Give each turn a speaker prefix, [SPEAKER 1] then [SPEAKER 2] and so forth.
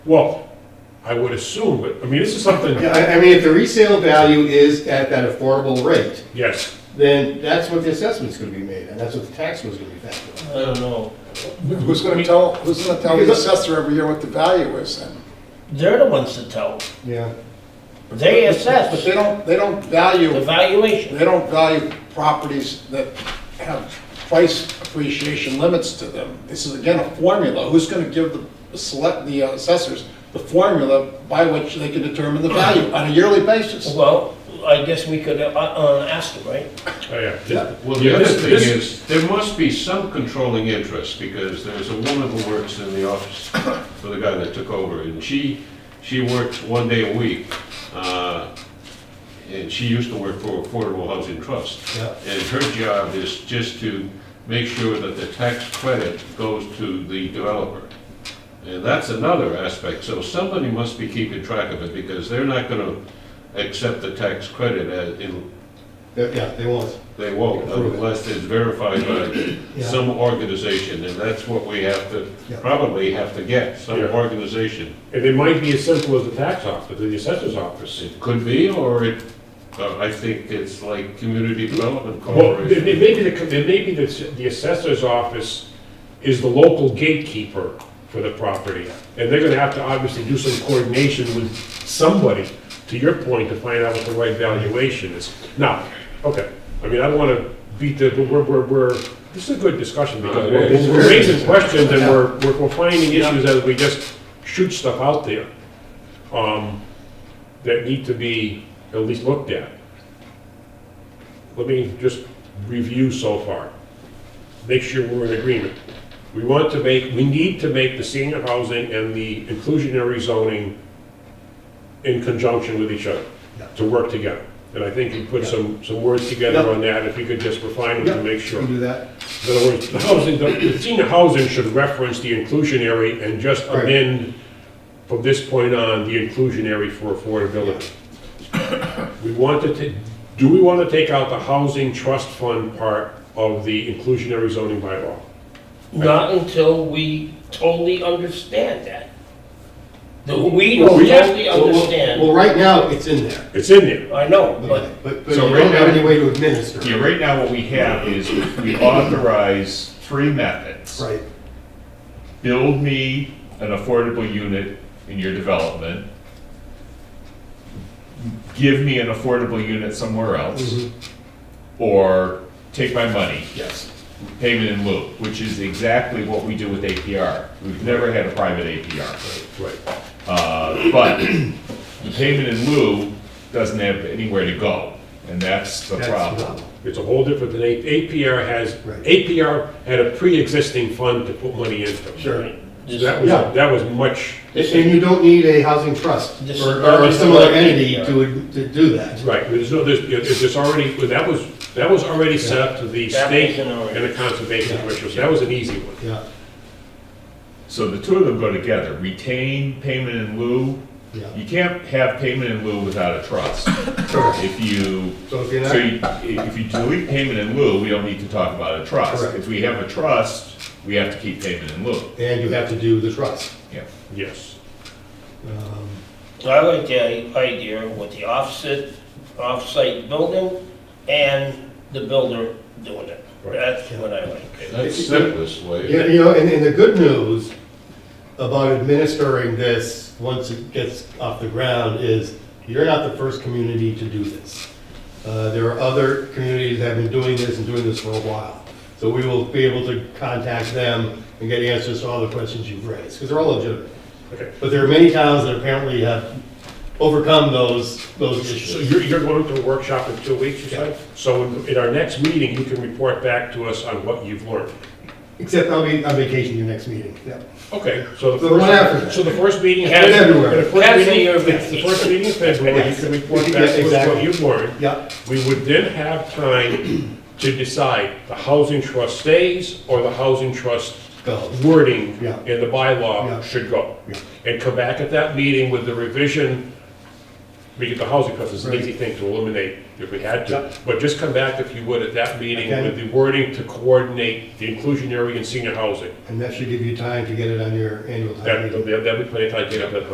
[SPEAKER 1] Well, I would assume, but, I mean, this is something,
[SPEAKER 2] Yeah, I, I mean, if the resale value is at that affordable rate,
[SPEAKER 1] yes.
[SPEAKER 2] then that's what the assessment's gonna be made, and that's what the tax was gonna be factored
[SPEAKER 3] I don't know.
[SPEAKER 4] Who's gonna tell, who's gonna tell the assessor every year what the value is then?
[SPEAKER 3] They're the ones that tell.
[SPEAKER 2] on. Yeah.
[SPEAKER 3] They
[SPEAKER 4] But they
[SPEAKER 3] assess
[SPEAKER 4] don't, they don't
[SPEAKER 3] the
[SPEAKER 4] value,
[SPEAKER 3] valuation.
[SPEAKER 4] they don't value properties that have price appreciation limits to them. This is again a formula. Who's gonna give the- the select, the assessors the formula by which they can determine the value on a yearly basis?
[SPEAKER 3] Well, I guess we could, uh, uh, ask them, right?
[SPEAKER 1] Oh, yeah.
[SPEAKER 4] Yeah.
[SPEAKER 5] Well,
[SPEAKER 1] Yeah,
[SPEAKER 5] the other
[SPEAKER 1] this-
[SPEAKER 5] thing
[SPEAKER 1] this-
[SPEAKER 5] is, there must be some controlling interest, because there's a woman who works in the office for the guy that took over, and she, she worked one day a week, uh, and she used to work for Affordable Housing Trust.
[SPEAKER 2] Yeah.
[SPEAKER 5] And her job is just to make sure that the tax credit goes to the developer. And that's another aspect, so somebody must be keeping track of it, because they're not gonna accept the tax credit as, in-
[SPEAKER 2] They- Yeah, they won't.
[SPEAKER 5] they won't
[SPEAKER 2] Approve it.
[SPEAKER 5] unless it's verified by
[SPEAKER 2] Yeah.
[SPEAKER 5] some organization, and that's what we have to,
[SPEAKER 2] Yeah.
[SPEAKER 5] probably have to get, some
[SPEAKER 1] Yeah.
[SPEAKER 5] organization.
[SPEAKER 1] And it might be as simple as the tax office, the assessor's office.
[SPEAKER 5] It could be, or it, uh, I think it's like Community Development
[SPEAKER 1] Well, it
[SPEAKER 5] Corporation.
[SPEAKER 1] may be, the- it may be that the assessor's office is the local gatekeeper for the property. And they're gonna have to obviously do some coordination with somebody, to your point, to find out what the right valuation is. Now, okay, I mean, I don't wanna beat the, but we're, we're, we're, this is a good discussion because we're we're raising questions and we're, we're- we're finding issues as we just shoot stuff out there. Um, that need to be at least looked at. Let me just review so far. Make sure we're in agreement. We want to make, we need to make the senior housing and the inclusionary zoning in conjunction with each other, to work together. And I think you put some, some words together
[SPEAKER 2] Yeah.
[SPEAKER 1] on that, if you could just refine them to make sure.
[SPEAKER 2] We can do that.
[SPEAKER 1] In other words, the housing, the the senior housing should reference the inclusionary and just
[SPEAKER 2] Right.
[SPEAKER 1] amend from this point on, the inclusionary for affordability. We want to, ta- do we want to take out the housing trust fund part of the inclusionary zoning bylaw?
[SPEAKER 3] Not until we totally understand that. That we
[SPEAKER 1] Well,
[SPEAKER 3] don't
[SPEAKER 1] we have-
[SPEAKER 3] totally
[SPEAKER 2] Well, well, Well,
[SPEAKER 3] understand.
[SPEAKER 2] right now, it's in there,
[SPEAKER 1] It's in there.
[SPEAKER 3] I know,
[SPEAKER 2] but,
[SPEAKER 3] but
[SPEAKER 2] but you
[SPEAKER 6] So
[SPEAKER 2] don't
[SPEAKER 6] right
[SPEAKER 2] have
[SPEAKER 6] now-
[SPEAKER 2] any way to administer
[SPEAKER 6] Yeah,
[SPEAKER 2] it.
[SPEAKER 6] right now what we have is we authorize three methods.
[SPEAKER 2] Right,
[SPEAKER 6] Build me an affordable unit in your development. Give me an affordable unit somewhere else. Or take my money,
[SPEAKER 2] yes.
[SPEAKER 6] payment in lieu, which is exactly what we do with APR. We've never had a private APR.
[SPEAKER 1] Right.
[SPEAKER 6] Uh, But the payment in lieu doesn't have anywhere to go, and that's the
[SPEAKER 2] That's
[SPEAKER 6] problem.
[SPEAKER 2] not-
[SPEAKER 1] It's a whole different than, A- APR has,
[SPEAKER 2] Right.
[SPEAKER 1] APR had a pre-existing fund to put money into.
[SPEAKER 2] Sure.
[SPEAKER 1] So That was,
[SPEAKER 2] Yeah.
[SPEAKER 1] that was much,
[SPEAKER 2] And and you don't need a housing trust
[SPEAKER 3] This
[SPEAKER 2] or
[SPEAKER 3] is-
[SPEAKER 2] or a similar
[SPEAKER 3] Yeah.
[SPEAKER 2] entity to, to do that.
[SPEAKER 1] right, there's no, there's, there's already, that was, that was already set up to the
[SPEAKER 3] That
[SPEAKER 1] state
[SPEAKER 3] was an already-
[SPEAKER 1] and the conservation commission, so that was an easy one.
[SPEAKER 2] Yeah,
[SPEAKER 6] So the two of them go together, retain payment in lieu.
[SPEAKER 2] yeah.
[SPEAKER 6] You can't have payment in lieu without a trust. If you,
[SPEAKER 2] So if you're
[SPEAKER 6] so
[SPEAKER 2] not,
[SPEAKER 6] you- if you delete payment in lieu, we don't need to talk about a trust.
[SPEAKER 2] Correct.
[SPEAKER 6] If we have a trust, we have to keep payment in lieu.
[SPEAKER 2] and you have to do the trust.
[SPEAKER 6] Yeah.
[SPEAKER 1] Yes.
[SPEAKER 2] Um,
[SPEAKER 3] I like the idea with the offset, offsite building and the builder doing it.
[SPEAKER 1] Right.
[SPEAKER 3] That's what I like.
[SPEAKER 5] That's simplest
[SPEAKER 2] Yeah,
[SPEAKER 5] way.
[SPEAKER 2] you know, and, and the good news about administering this, once it gets off the ground, is you're not the first community to do this. Uh, there are other communities that have been doing this and doing this for a while. So we will be able to contact them and get answers to all the questions you've raised, because they're all legitimate.
[SPEAKER 1] Okay.
[SPEAKER 2] But there are many towns that apparently have overcome those, those
[SPEAKER 1] So
[SPEAKER 2] issues.
[SPEAKER 1] you're, you're going to a workshop in two weeks, you said? So in- in our next meeting, you can report back to us on what you've learned.
[SPEAKER 2] Except I'll be on vacation your next meeting. Yeah.
[SPEAKER 1] Okay, so the
[SPEAKER 2] The one after
[SPEAKER 1] first,
[SPEAKER 2] that.
[SPEAKER 1] so the first meeting.
[SPEAKER 2] It's been everywhere.
[SPEAKER 1] The first
[SPEAKER 3] Cancel
[SPEAKER 1] meeting,
[SPEAKER 3] your
[SPEAKER 1] the first meeting in February, you can report
[SPEAKER 2] Yeah,
[SPEAKER 1] back to us what
[SPEAKER 2] exactly.
[SPEAKER 1] you've learned.
[SPEAKER 2] Yeah.
[SPEAKER 1] We would then have time to decide the housing trust stays or the housing trust
[SPEAKER 2] Goes.
[SPEAKER 1] wording
[SPEAKER 2] Yeah.
[SPEAKER 1] in the bylaw
[SPEAKER 2] Yeah.
[SPEAKER 1] should go.
[SPEAKER 2] Yeah.
[SPEAKER 1] And come back at that meeting with the revision we get the housing because it's an easy thing to eliminate if we had to. But just come back, if you would, at that meeting
[SPEAKER 2] Okay.
[SPEAKER 1] with the wording to coordinate the inclusionary and senior housing.
[SPEAKER 2] And that should give you time to get it on your annual time
[SPEAKER 1] That,
[SPEAKER 2] meeting.
[SPEAKER 1] that'd be plenty of time to get up that